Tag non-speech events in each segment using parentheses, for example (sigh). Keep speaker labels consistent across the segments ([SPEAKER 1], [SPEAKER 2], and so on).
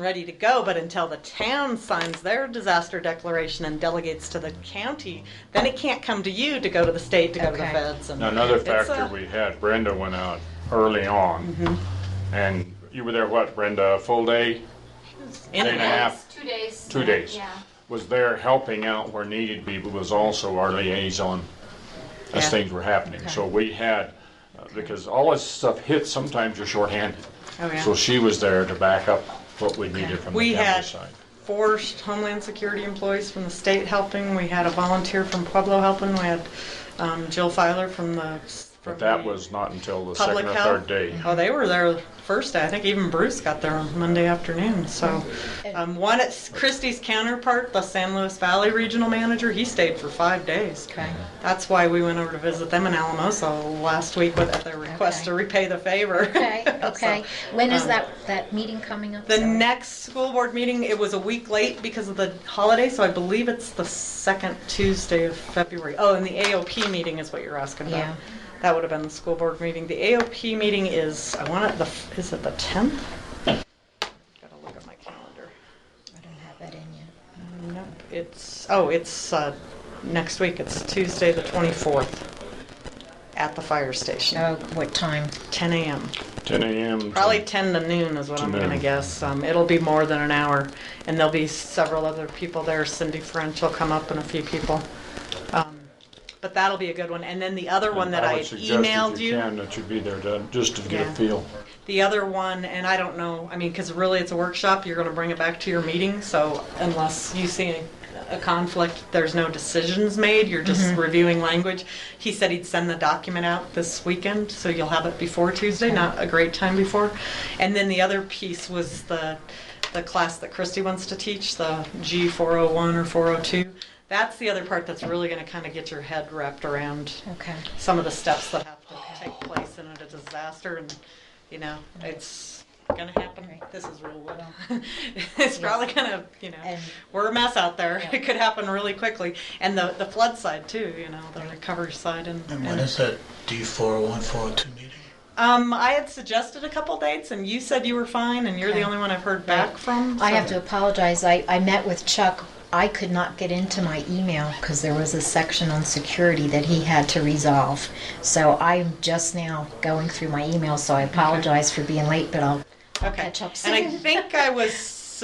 [SPEAKER 1] ready to go, but until the town signs their disaster declaration and delegates to the county, then it can't come to you to go to the state, to go to the
[SPEAKER 2] Okay.
[SPEAKER 1] feds and.
[SPEAKER 3] Another
[SPEAKER 1] It's uh, a-
[SPEAKER 3] factor we had, Brenda went out early on,
[SPEAKER 1] Mm-hmm.
[SPEAKER 3] and you were there, what, Brenda, a full day,
[SPEAKER 1] in-
[SPEAKER 3] day and a half?
[SPEAKER 4] Two days.
[SPEAKER 3] Two days.
[SPEAKER 4] Yeah.
[SPEAKER 3] Was there helping out where needed be, but was also our liaison as
[SPEAKER 1] Yeah.
[SPEAKER 3] things were happening. So we had, uh, because all this stuff hits, sometimes you're shorthanded.
[SPEAKER 1] Oh, yeah.
[SPEAKER 3] So she was there to back up what we needed from
[SPEAKER 1] We
[SPEAKER 3] the
[SPEAKER 1] had
[SPEAKER 3] county side.
[SPEAKER 1] four Homeland Security employees from the state helping, we had a volunteer from Pueblo helping, we had um, Jill Filer from the. from
[SPEAKER 3] But that
[SPEAKER 1] the
[SPEAKER 3] was not until the
[SPEAKER 1] Public
[SPEAKER 3] second or
[SPEAKER 1] health.
[SPEAKER 3] third day.
[SPEAKER 1] Oh, they were there first day, I think even Bruce got there on Monday afternoon, so. Um, One, at Christie's counterpart, the San Luis Valley Regional Manager, he stayed for five days.
[SPEAKER 2] Okay.
[SPEAKER 1] That's why we went over to visit them in Alamosa last week with their request to repay the favor.
[SPEAKER 2] Okay,
[SPEAKER 1] (laughs) So,
[SPEAKER 2] okay. When is
[SPEAKER 1] um,
[SPEAKER 2] that, that meeting coming up?
[SPEAKER 1] The
[SPEAKER 2] Sarah?
[SPEAKER 1] next school board meeting, it was a week late because of the holiday, so I believe it's the second Tuesday of February. Oh, and the AOP meeting is what you're asking about.
[SPEAKER 2] Yeah.
[SPEAKER 1] That would have been the school board meeting. The AOP meeting is, I want it, the, is it the 10th? Gotta look at my calendar.
[SPEAKER 2] I don't have that in yet.
[SPEAKER 1] Nope, it's, oh, it's uh, next week, it's Tuesday, the 24th, at the fire station,
[SPEAKER 2] Oh, what time?
[SPEAKER 1] 10 a.m.
[SPEAKER 3] 10 a.m. to-
[SPEAKER 1] Probably 10 to noon is what
[SPEAKER 3] To
[SPEAKER 1] I'm going to
[SPEAKER 3] noon.
[SPEAKER 1] guess. Um, It'll be more than an hour, and there'll be several other people there. Cindy French will come up and a few people. Um, But that'll be a good one. And then the other one that I
[SPEAKER 3] would
[SPEAKER 1] had
[SPEAKER 3] suggest if
[SPEAKER 1] emailed you.
[SPEAKER 3] can, That you be there to- just to get a
[SPEAKER 1] Yeah.
[SPEAKER 3] feel.
[SPEAKER 1] The other one, and I don't know, I mean, because really it's a workshop, you're going to bring it back to your meeting, so unless you see a- a conflict, there's no decisions made, you're just reviewing language. He said he'd send the document out this weekend, so you'll have it before Tuesday, not a great time before. And then the other piece was the, the class that Christy wants to teach, the G401 or 402. That's the other part that's really going to kind of get your head wrapped around
[SPEAKER 2] Okay.
[SPEAKER 1] some of the steps that have to take place in a disaster and, you know, it's gonna happen. This is real wood. (laughs) It's probably gonna, you know,
[SPEAKER 2] And-
[SPEAKER 1] we're a mess out there. (laughs) It could happen really quickly. And the, the flood side too, you know, the recovery side and.
[SPEAKER 5] And when is that D four one four two meeting?
[SPEAKER 1] Um, I had suggested a couple dates and you said you were fine and you're the
[SPEAKER 2] Okay.
[SPEAKER 1] only one I've heard back from.
[SPEAKER 2] I
[SPEAKER 1] so-
[SPEAKER 2] have to apologize. I, I met with Chuck. I could not get into my email because there was a section on security that he had to resolve. So I'm just now going through my email, so I apologize for being late, but I'll
[SPEAKER 1] Okay.
[SPEAKER 2] catch up
[SPEAKER 1] And I
[SPEAKER 2] soon.
[SPEAKER 1] think I was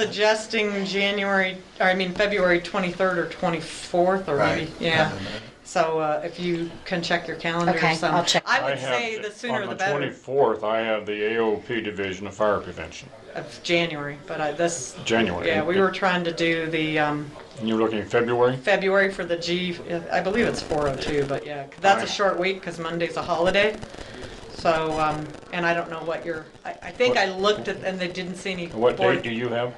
[SPEAKER 1] suggesting January, or I mean, February 23rd or 24th or maybe,
[SPEAKER 5] Right.
[SPEAKER 1] yeah.
[SPEAKER 5] Nothing there.
[SPEAKER 1] So uh, if you can check your calendar or
[SPEAKER 2] Okay,
[SPEAKER 1] some-
[SPEAKER 2] I'll check.
[SPEAKER 1] I would
[SPEAKER 3] have
[SPEAKER 1] say the sooner the
[SPEAKER 3] On the
[SPEAKER 1] better
[SPEAKER 3] 24th, I have the AOP Division of Fire Prevention,
[SPEAKER 1] of January, but I, this,
[SPEAKER 3] January.
[SPEAKER 1] yeah, we were trying to do the um,
[SPEAKER 3] And you're looking at February?
[SPEAKER 1] February for the G, I believe it's 402, but yeah, 'cause that's a
[SPEAKER 3] Alright.
[SPEAKER 1] short week because Monday's a holiday. So, um, and I don't know what your, I, I think I looked at, and they didn't see any.
[SPEAKER 3] And What
[SPEAKER 1] board-
[SPEAKER 3] date do you have?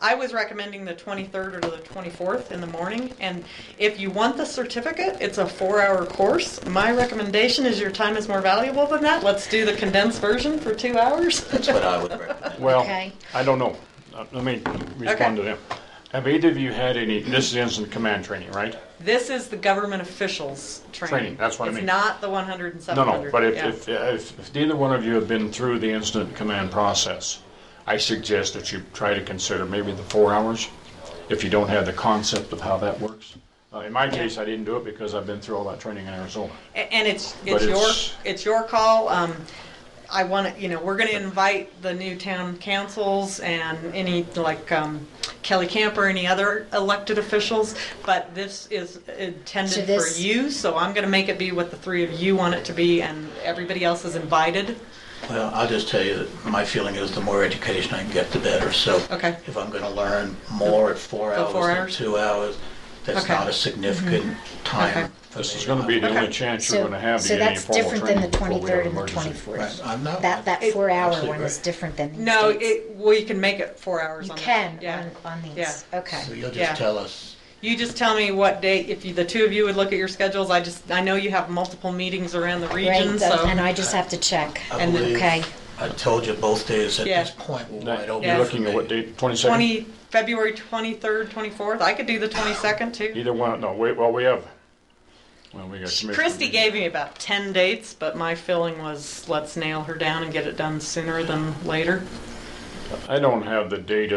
[SPEAKER 1] I was recommending the 23rd or the 24th in the morning. And if you want the certificate, it's a four-hour course. My recommendation is your time is more valuable than that. Let's do the condensed version for two hours.
[SPEAKER 5] That's what I would recommend.
[SPEAKER 3] Well,
[SPEAKER 2] Okay.
[SPEAKER 3] I don't know. Uh, Let me
[SPEAKER 1] Okay.
[SPEAKER 3] respond to them. Have either of you had any, this is instant command training, right?
[SPEAKER 1] (laughs) This is the government officials training.
[SPEAKER 3] Training, that's what I mean.
[SPEAKER 1] It's not the 100 and
[SPEAKER 3] No,
[SPEAKER 1] 700.
[SPEAKER 3] no, but if,
[SPEAKER 1] yeah.
[SPEAKER 3] if, if if neither one of you have been through the incident command process, I suggest that you try to consider maybe the four hours, if you don't have the concept of how that works. Uh, In my case, I didn't do it because I've been through all that training in Arizona.
[SPEAKER 1] A- And it's,
[SPEAKER 3] But
[SPEAKER 1] it's your,
[SPEAKER 3] it's-
[SPEAKER 1] it's your call. Um, I want to, you know, we're going to invite the new town councils and any, like um, Kelly Camp or any other elected officials, but this is
[SPEAKER 2] So
[SPEAKER 1] intended for
[SPEAKER 2] this-
[SPEAKER 1] you, so I'm going to make it be what the three of you want it to be, and everybody else is invited.
[SPEAKER 5] Well, I'll just tell you that my feeling is the more education I can get, the better. So
[SPEAKER 1] Okay.
[SPEAKER 5] if I'm gonna learn more at four
[SPEAKER 1] For
[SPEAKER 5] hours
[SPEAKER 1] four
[SPEAKER 5] than
[SPEAKER 1] hours?
[SPEAKER 5] two hours, that's
[SPEAKER 1] Okay.
[SPEAKER 5] not a significant
[SPEAKER 1] Okay.
[SPEAKER 5] time. for
[SPEAKER 3] This is
[SPEAKER 5] me.
[SPEAKER 3] gonna be the
[SPEAKER 1] Okay.
[SPEAKER 3] only chance you're
[SPEAKER 2] So,
[SPEAKER 3] gonna have to
[SPEAKER 2] so
[SPEAKER 3] get any
[SPEAKER 2] that's
[SPEAKER 3] formal
[SPEAKER 2] different than
[SPEAKER 3] training
[SPEAKER 2] the
[SPEAKER 3] before we have
[SPEAKER 2] twenty-third and
[SPEAKER 3] an
[SPEAKER 2] the
[SPEAKER 3] emergency.
[SPEAKER 5] Right,
[SPEAKER 2] twenty-fourth.
[SPEAKER 5] I'm not.
[SPEAKER 2] That, that four-hour
[SPEAKER 5] Absolutely
[SPEAKER 2] one
[SPEAKER 5] right.
[SPEAKER 2] is different than. the
[SPEAKER 1] No,
[SPEAKER 2] States.
[SPEAKER 1] it, well, you can make it four hours
[SPEAKER 2] You
[SPEAKER 1] on that.
[SPEAKER 2] can uh,
[SPEAKER 1] Yeah.
[SPEAKER 2] on, on these.
[SPEAKER 1] Yeah.
[SPEAKER 2] Okay.
[SPEAKER 5] So you'll
[SPEAKER 1] Yeah.
[SPEAKER 5] just tell us.
[SPEAKER 1] You just tell me what date, if you, the two of you would look at your schedules, I just, I know you have multiple meetings around the region,
[SPEAKER 2] Great.
[SPEAKER 1] so.
[SPEAKER 2] And I just have to check.
[SPEAKER 5] I
[SPEAKER 1] And then-
[SPEAKER 5] believe,
[SPEAKER 2] Okay.
[SPEAKER 5] I told you both days at
[SPEAKER 1] Yeah.
[SPEAKER 5] this point were
[SPEAKER 3] That-
[SPEAKER 5] wide open.
[SPEAKER 3] You're
[SPEAKER 1] Yeah.
[SPEAKER 3] looking at what date, 22nd?
[SPEAKER 1] 20, February 23rd, 24th. I could do the 22nd too.
[SPEAKER 3] Either one, no, wait, well, we have, well, we got. Commissioner
[SPEAKER 1] Christy
[SPEAKER 3] meeting.
[SPEAKER 1] gave me about 10 dates, but my feeling was let's nail her down and get it done sooner than later.
[SPEAKER 3] I don't have the date